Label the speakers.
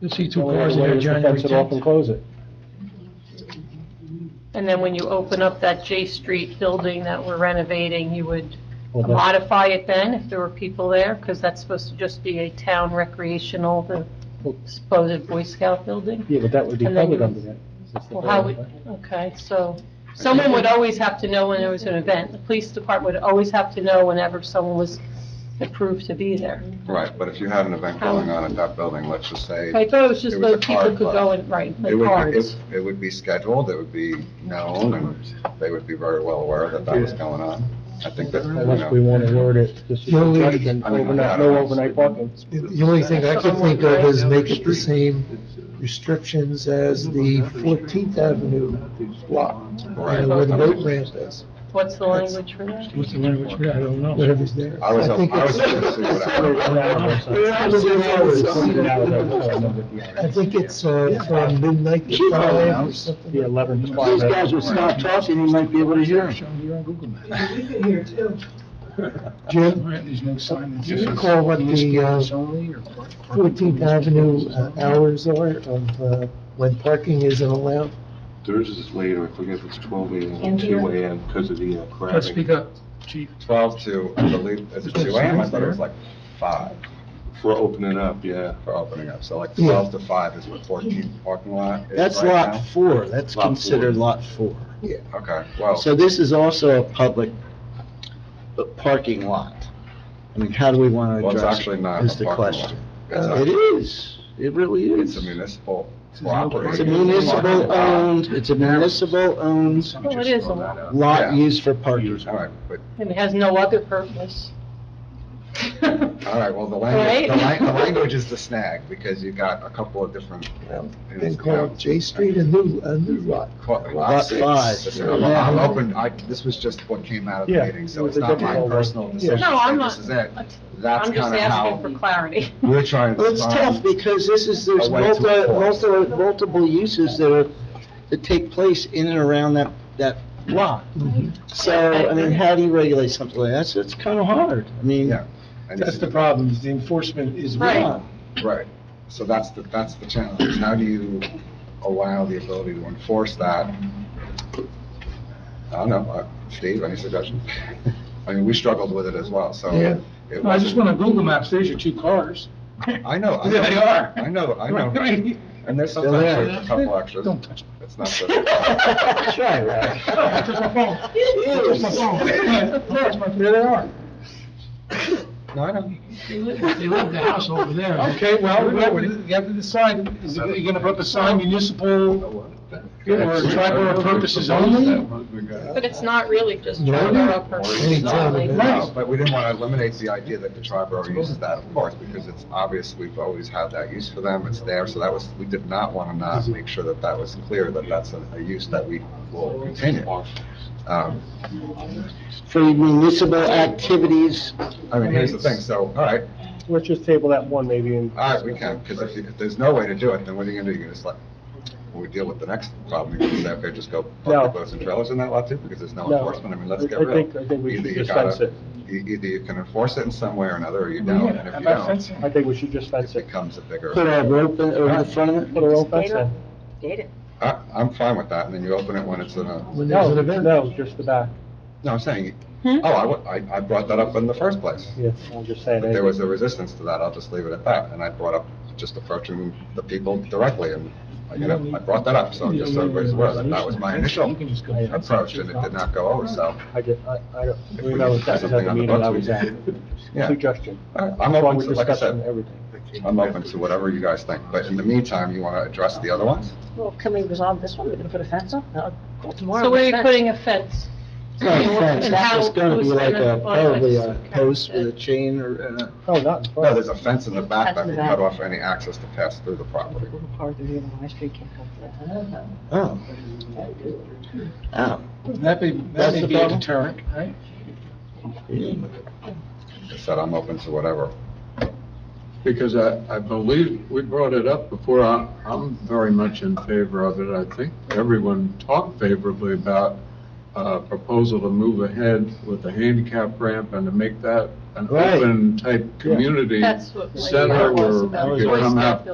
Speaker 1: You'll see two
Speaker 2: Only
Speaker 1: cars
Speaker 2: way
Speaker 1: there
Speaker 2: is to
Speaker 1: January
Speaker 2: Fence it off and
Speaker 1: 10th.
Speaker 2: close it.
Speaker 3: And then when you open up that J Street building that we're renovating, you would
Speaker 2: Well, that's-
Speaker 3: modify it then if there were people there? Because that's supposed to just be a town recreational, the supposed Boy Scout building?
Speaker 2: Yeah, but that would be
Speaker 3: And then
Speaker 2: covered
Speaker 3: you-
Speaker 2: under that. since the
Speaker 3: Well, how
Speaker 2: building,
Speaker 3: would, okay, so someone would always have to know when there was an event. The police department would always have to know whenever someone was approved to be there.
Speaker 4: Right, but if you had an event going on at that building, let's just say,
Speaker 3: I thought it was just
Speaker 4: It was
Speaker 3: so
Speaker 4: a
Speaker 3: people
Speaker 4: card
Speaker 3: could go and, right, play
Speaker 4: it would, be-
Speaker 3: cards.
Speaker 4: it it would be scheduled, it would be known, and they would be very well aware that that was going on. I think that, you
Speaker 2: Unless we
Speaker 4: know,
Speaker 2: want to word it, this is
Speaker 1: The only-
Speaker 2: judgment,
Speaker 4: I mean,
Speaker 2: overnight,
Speaker 4: I don't
Speaker 2: no
Speaker 4: know.
Speaker 2: overnight parking.
Speaker 1: The only thing I could think of is make it the same restrictions as the 14th Avenue block, you know, where the boat
Speaker 4: right.
Speaker 1: ramp is,
Speaker 3: What's the language for that?
Speaker 5: What's the language for that? I don't know.
Speaker 1: whatever's there.
Speaker 4: I was, I
Speaker 1: think
Speaker 4: was
Speaker 1: it's-
Speaker 4: going to see what happened.
Speaker 1: I think it's uh, from midnight to five or something.
Speaker 2: The eleven,
Speaker 4: These guys
Speaker 2: twelve.
Speaker 4: will stop
Speaker 5: talking, you might be able to hear. You're on Google Maps.
Speaker 1: Jim,
Speaker 5: All right, There's no sign. that
Speaker 1: Do you
Speaker 5: says
Speaker 1: recall what the,
Speaker 5: ESPN
Speaker 1: uh,
Speaker 5: is only or park- park-
Speaker 1: 14th Avenue uh, hours are of uh, when parking isn't allowed.
Speaker 6: Theirs is later, I forget if it's twelve AM or two AM because of the uh,
Speaker 5: Let's speak
Speaker 6: crowding.
Speaker 5: up, chief.
Speaker 4: 12 to, I believe, is it 2 a.m.? I thought it was like 5
Speaker 6: For opening up, yeah.
Speaker 4: for opening up. So like 12 to 5 is what 14th parking lot is
Speaker 7: That's
Speaker 4: right
Speaker 7: lot four, that's
Speaker 6: Lot four.
Speaker 7: considered lot four.
Speaker 4: now? Okay, well,
Speaker 7: So this is also a public uh, parking lot. I mean, how do we want to
Speaker 4: well, it's
Speaker 7: address
Speaker 4: actually
Speaker 7: it,
Speaker 4: not
Speaker 7: is
Speaker 4: a
Speaker 7: the
Speaker 4: parking lot.
Speaker 7: question.
Speaker 4: It's
Speaker 7: It
Speaker 4: a-
Speaker 7: is, it really
Speaker 4: It's
Speaker 7: is.
Speaker 4: a municipal
Speaker 5: It's not
Speaker 4: property.
Speaker 7: It's a municipal-owned, it's a municipal-owned
Speaker 3: Well, it is a lot,
Speaker 4: Yeah.
Speaker 7: lot used for parking.
Speaker 4: All right, but
Speaker 3: and it has no other purpose.
Speaker 4: All right, well, the language,
Speaker 3: Right?
Speaker 4: the lang- the language is the snag, because you got a couple of different.
Speaker 1: Then call it J Street a new, a new lot.
Speaker 4: Lot
Speaker 7: five.
Speaker 4: I'm open, I, this was just what came out of the
Speaker 2: Yeah,
Speaker 4: meeting, so
Speaker 2: it was
Speaker 4: it's
Speaker 2: a
Speaker 4: not my
Speaker 2: difficult one.
Speaker 4: personal decision.
Speaker 3: No,
Speaker 4: to say
Speaker 3: I'm not-
Speaker 4: This is it. That's
Speaker 3: I'm just
Speaker 4: kind of
Speaker 3: asking for
Speaker 4: how
Speaker 3: clarity.
Speaker 4: we're trying
Speaker 7: Well,
Speaker 4: to
Speaker 7: it's
Speaker 4: find.
Speaker 7: tough because this is, there's
Speaker 4: A way to
Speaker 7: multi,
Speaker 4: enforce.
Speaker 7: multi, multiple uses that are, that take place in and around that, that lot.
Speaker 4: Mm-hmm.
Speaker 7: So, I mean, how do you regulate something like that? So it's kind of hard. I mean,
Speaker 4: Yeah. and
Speaker 5: That's
Speaker 4: this
Speaker 5: the
Speaker 4: is-
Speaker 5: problem, is the enforcement is
Speaker 3: Right.
Speaker 5: wrong.
Speaker 4: Right, so that's the, that's the challenge, is how do you allow the ability to enforce that? I don't know, Uh, Steve, any suggestions? I mean, we struggled with it as well, so.
Speaker 1: Yeah.
Speaker 4: it
Speaker 5: I just
Speaker 4: wasn't-
Speaker 5: went on Google Maps, there's your two cars.
Speaker 4: I know. I
Speaker 5: There they
Speaker 4: know.
Speaker 5: are.
Speaker 4: I know, I
Speaker 5: Right,
Speaker 4: know.
Speaker 5: right.
Speaker 4: And there's
Speaker 7: Still
Speaker 4: sometimes
Speaker 7: there.
Speaker 4: there's a couple extras.
Speaker 5: Don't touch me.
Speaker 4: It's not so.
Speaker 7: try, right?
Speaker 5: I took my phone. I took my phone. There's my- There they are.
Speaker 4: No, I know.
Speaker 5: They left the house over there.
Speaker 4: Okay, well,
Speaker 5: You have to- you have to decide, is it, are you gonna put the sign municipal or tribal purposes only?
Speaker 3: But it's not really just
Speaker 1: No,
Speaker 3: for
Speaker 1: no.
Speaker 3: our purposes.
Speaker 1: Any time of
Speaker 3: really.
Speaker 1: the
Speaker 5: Right.
Speaker 4: No, but we didn't want to eliminate the idea that the tribe already uses that, of course, because it's obvious we've always had that use for them. It's there, so that was, we did not want to not make sure that that was clear, that that's a, a use that we will continue. Um,
Speaker 7: For municipal activities,
Speaker 4: I mean, here's the thing, so, all right,
Speaker 2: Let's just table that one maybe and.
Speaker 4: All right, we can, because if, you- if there's no way to do it, then what are you gonna do? You're gonna just like, when we deal with the next problem, you're gonna say, okay, just go
Speaker 2: No.
Speaker 4: park the boats and trailers in that lot too, because there's no
Speaker 2: No.
Speaker 4: enforcement, I mean,
Speaker 2: I
Speaker 4: let's get
Speaker 2: I
Speaker 4: real.
Speaker 2: think, I think we
Speaker 4: Either
Speaker 2: should
Speaker 4: you
Speaker 2: just
Speaker 4: gotta-
Speaker 2: fence it.
Speaker 4: e- Either you can enforce it in some way or another, or you
Speaker 5: Yeah,
Speaker 4: don't, and
Speaker 5: how
Speaker 4: if you
Speaker 5: about
Speaker 4: don't,
Speaker 5: fencing?
Speaker 2: I think we should just
Speaker 4: it
Speaker 2: fence it.
Speaker 4: becomes a bigger,
Speaker 7: put a rope in- over the front of
Speaker 2: Put
Speaker 7: it.
Speaker 2: a roll fence in.
Speaker 4: I, I'm fine with that, and then you open it when it's in a,
Speaker 1: When there's
Speaker 2: No,
Speaker 1: an event.
Speaker 2: no, just the back.
Speaker 4: no, I'm saying,
Speaker 3: Hmm?
Speaker 4: oh, I wa- I, I brought that up in the first place.
Speaker 2: Yeah, I'm just saying.
Speaker 4: But there was a resistance to that, I'll just leave it at that, and I brought up just approaching the people directly, and, you know, I brought that up, so just so everybody's aware, that that was my initial
Speaker 5: You can just go-
Speaker 4: approach, and it did not go over, so,
Speaker 2: I did, I, I don't, we know that that was at the meeting I was at.
Speaker 4: yeah.
Speaker 2: Suggestion.
Speaker 4: I'm open
Speaker 2: We're
Speaker 4: to, like I
Speaker 2: discussing
Speaker 4: said,
Speaker 2: everything.
Speaker 4: I'm open to whatever you guys think, but in the meantime, you want to address the other ones?
Speaker 8: Well, can we resolve this one? We're gonna put a fence up? No, call tomorrow.
Speaker 3: So where are you
Speaker 8: Fence.
Speaker 3: putting a fence?
Speaker 7: Not a fence,
Speaker 3: And
Speaker 7: that's
Speaker 3: how-
Speaker 7: just gonna be
Speaker 3: who's
Speaker 7: like
Speaker 3: gonna-
Speaker 7: a, probably
Speaker 2: uh,
Speaker 7: a post with a chain or, uh, and a-
Speaker 2: Oh, not in front.
Speaker 4: No, there's a fence in the back that
Speaker 8: That's in
Speaker 4: will
Speaker 8: the
Speaker 4: cut
Speaker 8: back.
Speaker 4: off any access to pass through the property.
Speaker 8: Little car through the middle of my street can't come through.
Speaker 7: oh. Oh.
Speaker 5: That may, that
Speaker 7: That's
Speaker 5: may
Speaker 7: the
Speaker 5: be a
Speaker 7: problem?
Speaker 5: deterrent, right?
Speaker 4: Like I said, I'm open to whatever.
Speaker 6: Because I, I believe we brought it up before, I, I'm very much in favor of it. I think everyone talked favorably about a proposal to move ahead with the handicap ramp and to make that an
Speaker 7: Right.
Speaker 6: open type community
Speaker 3: That's what. my
Speaker 6: center
Speaker 3: thought was
Speaker 6: where
Speaker 3: about
Speaker 6: we
Speaker 3: Boy
Speaker 6: could come
Speaker 3: Scout
Speaker 6: out